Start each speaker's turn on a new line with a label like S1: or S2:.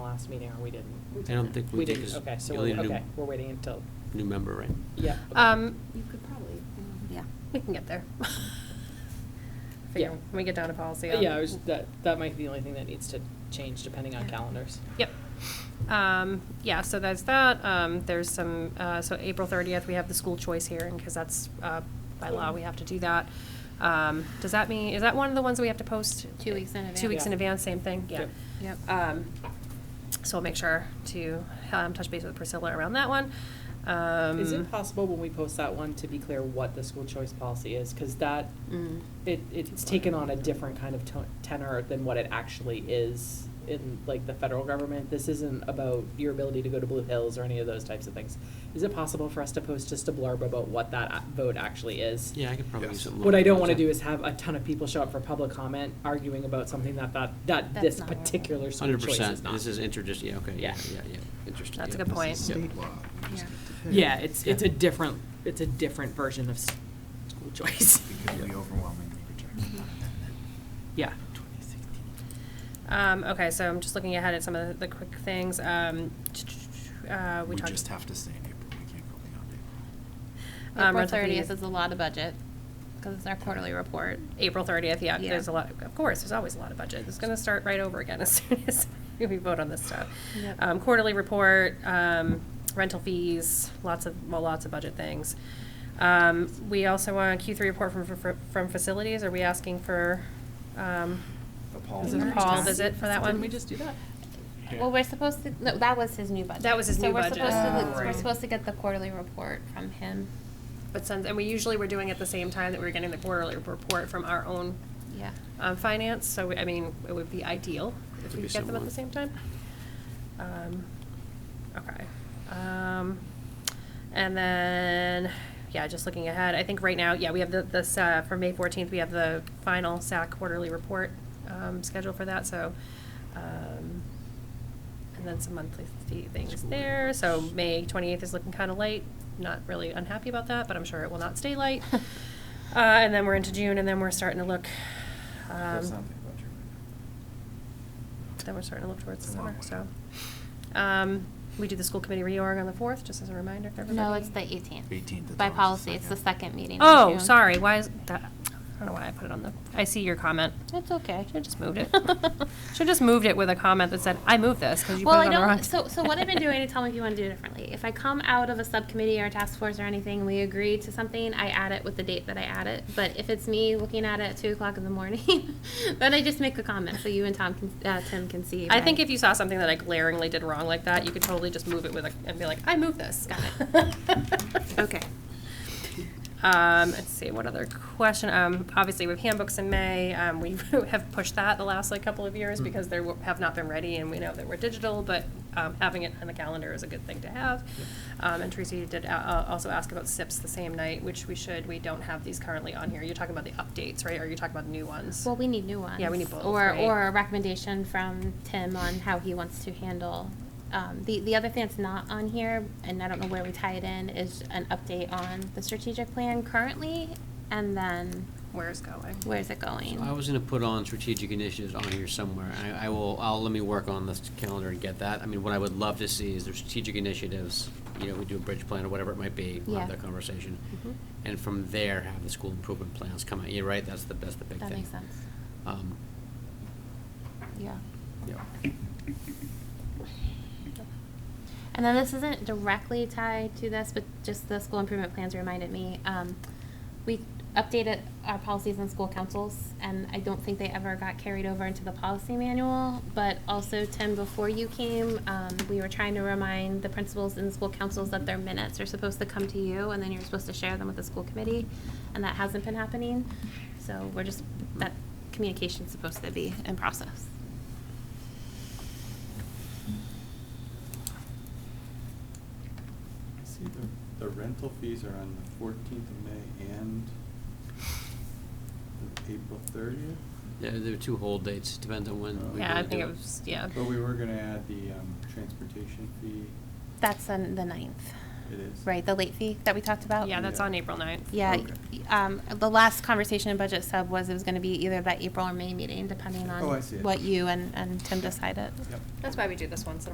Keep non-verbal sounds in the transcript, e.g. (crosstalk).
S1: last meeting, or we didn't?
S2: I don't think we did.
S1: didn't,
S2: 'cause
S1: okay, so,
S2: you
S1: we're-
S2: need a new-
S1: okay, we're waiting until,
S2: New member, right?
S1: yeah. okay.
S3: Um,
S4: You could probably, mm, yeah.
S3: we can get there. (laughs)
S1: Yeah.
S3: Figure, when we get down to policy.
S1: But
S3: I'll-
S1: Yeah, I was, that, that might be the only thing that needs to change depending on calendars.
S3: Yep. Um, yeah, so that's that. Um, there's some, uh, so April thirtieth, we have the school choice hearing, because that's, uh, by law, we have to do that. Um, does that mean, is that one of the ones that we have to post?
S4: Two weeks in
S3: Two weeks
S1: Yeah.
S3: in advance, same thing, yeah.
S1: Yep.
S4: Yep.
S3: Um, so I'll make sure to, um, touch base with Priscilla around that one. Um.
S1: Is it possible when we post that one to be clear what the school choice policy is? Because that,
S4: Mm.
S1: it, it's taken on a different kind of to- tenor than what it actually is in like the federal government. This isn't about your ability to go to Blue Hills or any of those types of things. Is it possible for us to post just a blurb about what that a- vote actually is?
S2: Yeah, I could probably use
S5: Yes.
S2: something.
S1: What I
S2: like
S1: don't
S2: that.
S1: want to do is have a ton of people show up for public comment arguing about something that that, that
S4: That's
S1: this
S4: not relevant.
S1: particular school
S2: Hundred
S1: choice is
S2: percent,
S1: not.
S2: this is interdis, yeah, okay, yeah, yeah, yeah, interesting.
S3: That's a
S2: yeah.
S3: good point.
S5: This is state law. You just
S4: Yeah.
S5: get to pick.
S1: Yeah, it's, it's a
S2: Yeah.
S1: different, it's a different version of s- school choice.
S2: (laughs)
S5: It could be overwhelmingly
S3: Mm-hmm.
S5: rejected.
S1: Yeah.
S3: Um, okay, so I'm just looking ahead at some of the the quick things. Um, uh, we
S5: We
S3: talked.
S5: just have to stay in April, we can't go beyond April.
S3: Um,
S4: April
S3: relatively-
S4: thirtieth is a lot of budget, because it's our quarterly report.
S3: April thirtieth, yeah,
S4: Yeah.
S3: there's a lot, of course, there's always a lot of budget. It's gonna start right over again (laughs) as soon as we vote on this stuff.
S4: Yep.
S3: Um, quarterly report, um, rental fees, lots of, well, lots of budget things. Um, we also want a Q three report from, from- from facilities. Are we asking for, um,
S5: A Paul
S3: is
S4: visit.
S3: it a Paul visit for that one?
S1: Didn't we just do that?
S5: Yeah.
S4: Well, we're supposed to, no, that was his new budget.
S3: That was his new budget.
S4: So we're supposed
S1: Oh.
S4: to, we're
S1: Right.
S4: supposed to get the quarterly report from him,
S3: But since, and we usually were doing it the same time that we were getting the quarterly report from our own
S4: yeah.
S3: um, finance, so, we- I mean, it would be ideal if
S2: Could
S3: we
S2: be
S3: could get them at
S2: similar.
S3: the same time. Um, Okay. Um, And then, yeah, just looking ahead, I think right now, yeah, we have the, this, uh, for May fourteenth, we have the final SAC quarterly report um, scheduled for that, so, um, and then some monthly fee things
S2: School
S3: there, so
S2: reports.
S3: May twenty-eighth is looking kinda late, not really unhappy about that, but I'm sure it will not stay
S2: (laughs)
S3: light. Uh, and then we're into June, and then we're starting to look, um,
S5: There's nothing about your window.
S3: then we're starting to look towards the
S5: It's a long
S3: summer, so.
S5: way.
S3: Um, we do the school committee reorg on the fourth, just as a reminder for everybody.
S4: No, it's the eighteenth.
S5: 18th, it's
S4: By
S5: always the
S4: policy, it's the
S5: second.
S4: second meeting. in
S3: Oh,
S4: June.
S3: sorry, why is that, I don't know why I put it on the, I see your comment.
S4: It's okay.
S3: Should've just
S4: (laughs)
S3: moved it. (laughs) Should've just moved it with a comment that said, I moved this, cause you put
S4: Well,
S3: it
S4: I
S3: on the wrong.
S4: don't, (laughs) so, so what I've been doing, and
S3: (laughs)
S4: tell me if you want to do it differently. If I come out of a subcommittee or a task force or anything, we agree to something, I add it with the date that I add it. But if it's me looking at it at two o'clock in the morning, (laughs) then I just make a comment, so you and Tom can, uh, Tim can see.
S3: I
S4: that-
S3: think if you saw something that I glaringly did wrong like that, you could totally just move it with a, and be like, I moved this.
S4: Got
S3: it.
S4: (laughs)
S3: (laughs)
S4: Okay.
S3: Um, let's see, what other question? Um, obviously with handbooks in May, um, we (laughs) have pushed that the last like couple of years because they were- have not been ready and we know that we're digital, but, um, having it on the calendar is a good thing to have. Um, and Tracy did, uh, uh, also ask about SIPs the same night, which we should, we don't have these currently on here. You're talking about the updates, right? Or you're talking about new ones?
S4: Well, we need new ones.
S3: Yeah, we need both,
S4: Or,
S3: right?
S4: or a recommendation from Tim on how he wants to handle. Um, the, the other thing that's not on here, and I don't know where we tie it in, is an update on the strategic plan currently, and then
S3: Where's going?
S4: where's it going?
S2: So I was gonna put on strategic initiatives on here somewhere, I, I will, I'll, let me work on this calendar and get that. I mean, what I would love to see is the strategic initiatives, you know, we do a bridge plan or whatever it might be, we'll have
S4: Yeah.
S2: that conversation.
S3: Mm-hmm.
S4: Mhm.
S2: And from there, have the school improvement plans come out, you're right, that's the, that's the big thing.
S4: That makes sense.
S2: Um,
S4: Yeah.
S2: yeah.
S4: And then this isn't directly tied to this, but just the school improvement plans reminded me. Um, we updated our policies on school councils, and I don't think they ever got carried over into the policy manual. But also, Tim, before you came, um, we were trying to remind the principals and school councils that their minutes are supposed to come to you, and then you're supposed to share them with the school committee, and that hasn't been happening. So we're just, that communication's supposed to be in process.
S6: See, the, the rental fees are on the fourteenth of May and the April thirtieth?
S2: Yeah, there are two hold dates, depends on when we
S3: Yeah, I
S2: wanna
S3: think
S2: do
S3: it was, yeah.
S6: But we were gonna add the, um, transportation fee,
S4: That's on the ninth.
S6: it is.
S4: Right, the late fee that we talked about?
S3: Yeah, that's
S6: Yeah.
S3: on April ninth.
S4: Yeah,
S6: Okay.
S4: y- um, the last conversation in budget sub was it was gonna be either that April or May meeting, depending on
S6: Oh, I see.
S4: what you and, and Tim decided.
S6: Yep.
S3: That's why we do this once in a